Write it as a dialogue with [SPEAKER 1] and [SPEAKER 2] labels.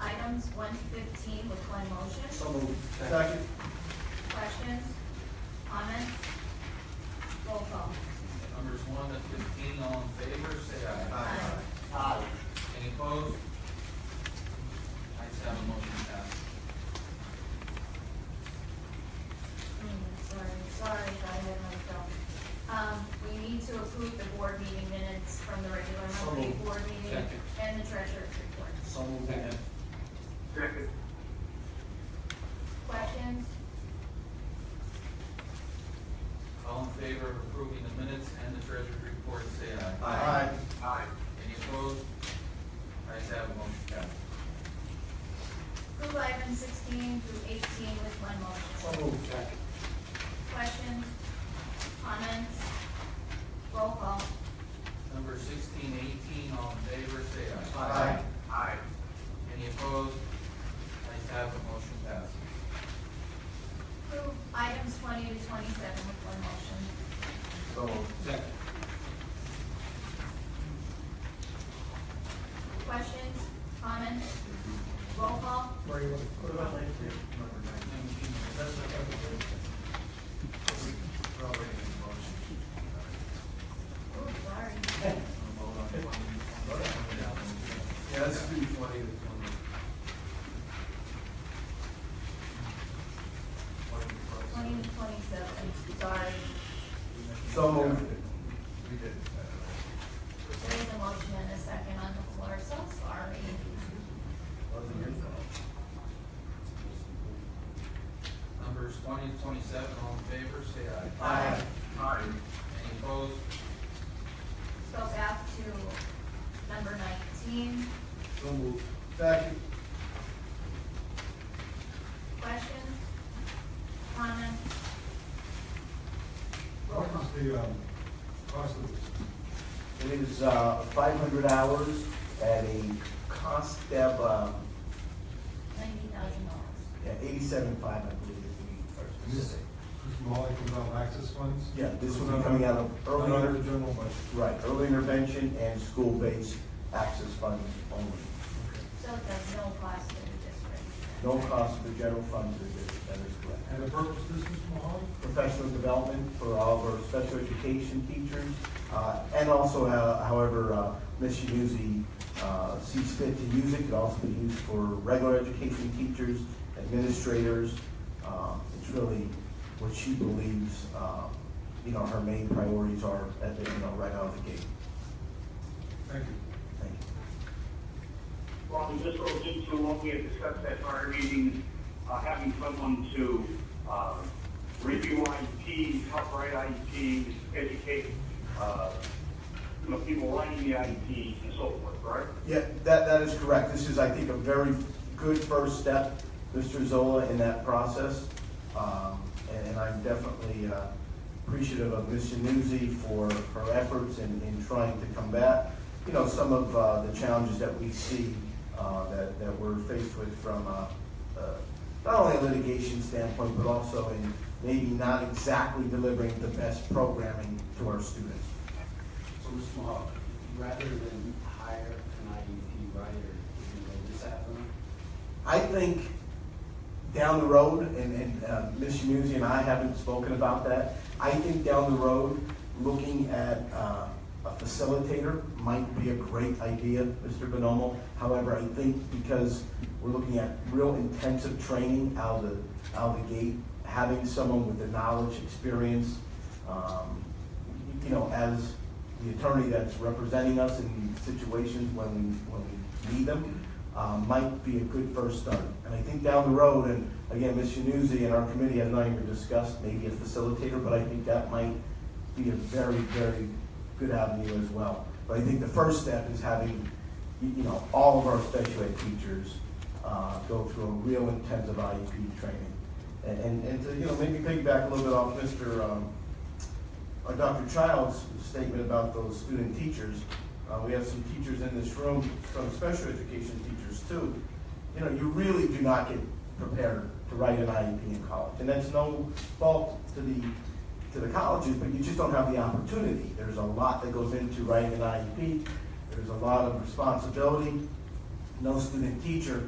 [SPEAKER 1] items one to fifteen with one motion.
[SPEAKER 2] So moved.
[SPEAKER 3] Second.
[SPEAKER 1] Questions? Comments? Roll call.
[SPEAKER 4] Numbers one to fifteen, all in favor, say aye.
[SPEAKER 1] Aye.
[SPEAKER 2] Aye.
[SPEAKER 4] Any opposed? Ayes have a motion passed.
[SPEAKER 1] Hmm, Sorry, sorry, I had myself. Um, we need to approve the board meeting minutes from the regular
[SPEAKER 2] So
[SPEAKER 1] monthly
[SPEAKER 2] moved.
[SPEAKER 1] board meeting
[SPEAKER 4] Second.
[SPEAKER 1] and the treasurer's report.
[SPEAKER 2] So moved.
[SPEAKER 5] second,
[SPEAKER 1] Questions?
[SPEAKER 4] All in favor of approving the minutes and the treasurer's report, say aye.
[SPEAKER 2] Aye.
[SPEAKER 5] aye,
[SPEAKER 4] Any opposed? Ayes have a motion passed.
[SPEAKER 1] Approve items sixteen through eighteen with one motion.
[SPEAKER 2] So moved.
[SPEAKER 1] Questions? Comments? Roll call.
[SPEAKER 4] Number sixteen, eighteen, all in favor, say aye.
[SPEAKER 2] Aye.
[SPEAKER 5] aye,
[SPEAKER 4] Any opposed? Ayes have a motion passed.
[SPEAKER 1] Approve items twenty to twenty-seven with one motion.
[SPEAKER 2] So moved.
[SPEAKER 4] Second.
[SPEAKER 1] Questions? Comments? Roll call.
[SPEAKER 3] What about nineteen?
[SPEAKER 2] Number nine.
[SPEAKER 4] Nineteen,
[SPEAKER 3] That's not gonna be good.
[SPEAKER 2] We're already in motion.
[SPEAKER 1] Ooh, sorry.
[SPEAKER 2] We'll vote on twenty. Yeah, let's do twenty to twenty. Twenty to twenty.
[SPEAKER 1] Twenty to twenty-seven, sorry.
[SPEAKER 2] So moved.
[SPEAKER 6] We did.
[SPEAKER 1] There is a motion and a second on the floor, so sorry.
[SPEAKER 2] Wasn't your fault.
[SPEAKER 4] Numbers twenty to twenty-seven, all in favor, say aye.
[SPEAKER 2] Aye.
[SPEAKER 5] aye,
[SPEAKER 4] Any opposed?
[SPEAKER 1] Go back to number nineteen.
[SPEAKER 2] So moved. Second.
[SPEAKER 1] Questions? Comments? Roll
[SPEAKER 6] What
[SPEAKER 1] call.
[SPEAKER 6] was the, um, cost of this?
[SPEAKER 7] It is uh, 500 hours at a cost of um,
[SPEAKER 1] Ninety thousand dollars.
[SPEAKER 7] yeah, 87.5, I believe, if we are
[SPEAKER 6] And This,
[SPEAKER 7] specific.
[SPEAKER 6] this from all comes out of access funds?
[SPEAKER 7] Yeah, this would be coming out of
[SPEAKER 6] Not out of the
[SPEAKER 7] early,
[SPEAKER 6] general budget.
[SPEAKER 7] right, early intervention and school-based access funds only.
[SPEAKER 1] So there's no cost to the district.
[SPEAKER 7] No cost to the general fund, to the- that is correct.
[SPEAKER 6] And the purpose of this, Mr. Mahoney?
[SPEAKER 7] Professional development for all of our special education teachers, uh, and also, uh, however, uh, Ms. Shanuzi, uh sees fit to use it, could also be used for regular education teachers, administrators. Uh, It's really what she believes, uh, you know, her main priorities are, at the you know, right out of the gate.
[SPEAKER 6] Thank you.
[SPEAKER 7] Thank you.
[SPEAKER 5] Well, this goes into what we had discussed at prior meetings, uh, having someone to, uh, review IEPs, help write IEPs, educate, uh, you know, people writing the IEPs and so forth, right?
[SPEAKER 7] Yeah, that, that is correct. This is, I think, a very good first step, Mr. Zola, in that process. Um, And and I'm definitely uh, appreciative of Ms. Januzzi for her efforts in, in trying to combat, you know, some of uh, the challenges that we see uh, that, that we're faced with from uh, uh, not only a litigation standpoint, but also in maybe not exactly delivering the best programming to our students.
[SPEAKER 8] So Mr. Mahal, rather than hire an IEP writer, you know, this avenue,
[SPEAKER 7] I think down the road, and, and uh, Ms. Shamuzi and I haven't spoken about that, I think down the road, looking at uh, a facilitator might be a great idea, Mr. Bonomo. However, I think because we're looking at real intensive training out of the, out of the gate, having someone with the knowledge, experience, um, you know, as the attorney that's representing us in situations when we, when we need them, uh, might be a good first start. And I think down the road, and again, Ms. Januzzi and our committee have not even discussed maybe a facilitator, but I think that might be a very, very good avenue as well. But I think the first step is having, you you know, all of our special ed teachers uh, go through a real intensive IEP training. And- And, and to, you know, maybe piggyback a little bit off Mr. um, uh, Dr. Child's statement about those student teachers, uh, we have some teachers in this room, some special education teachers too. You know, you really do not get prepared to write an IEP in college, and that's no fault to the, to the colleges, but you just don't have the opportunity. There's a lot that goes into E writing an IEP, there's a lot of responsibility. No student teacher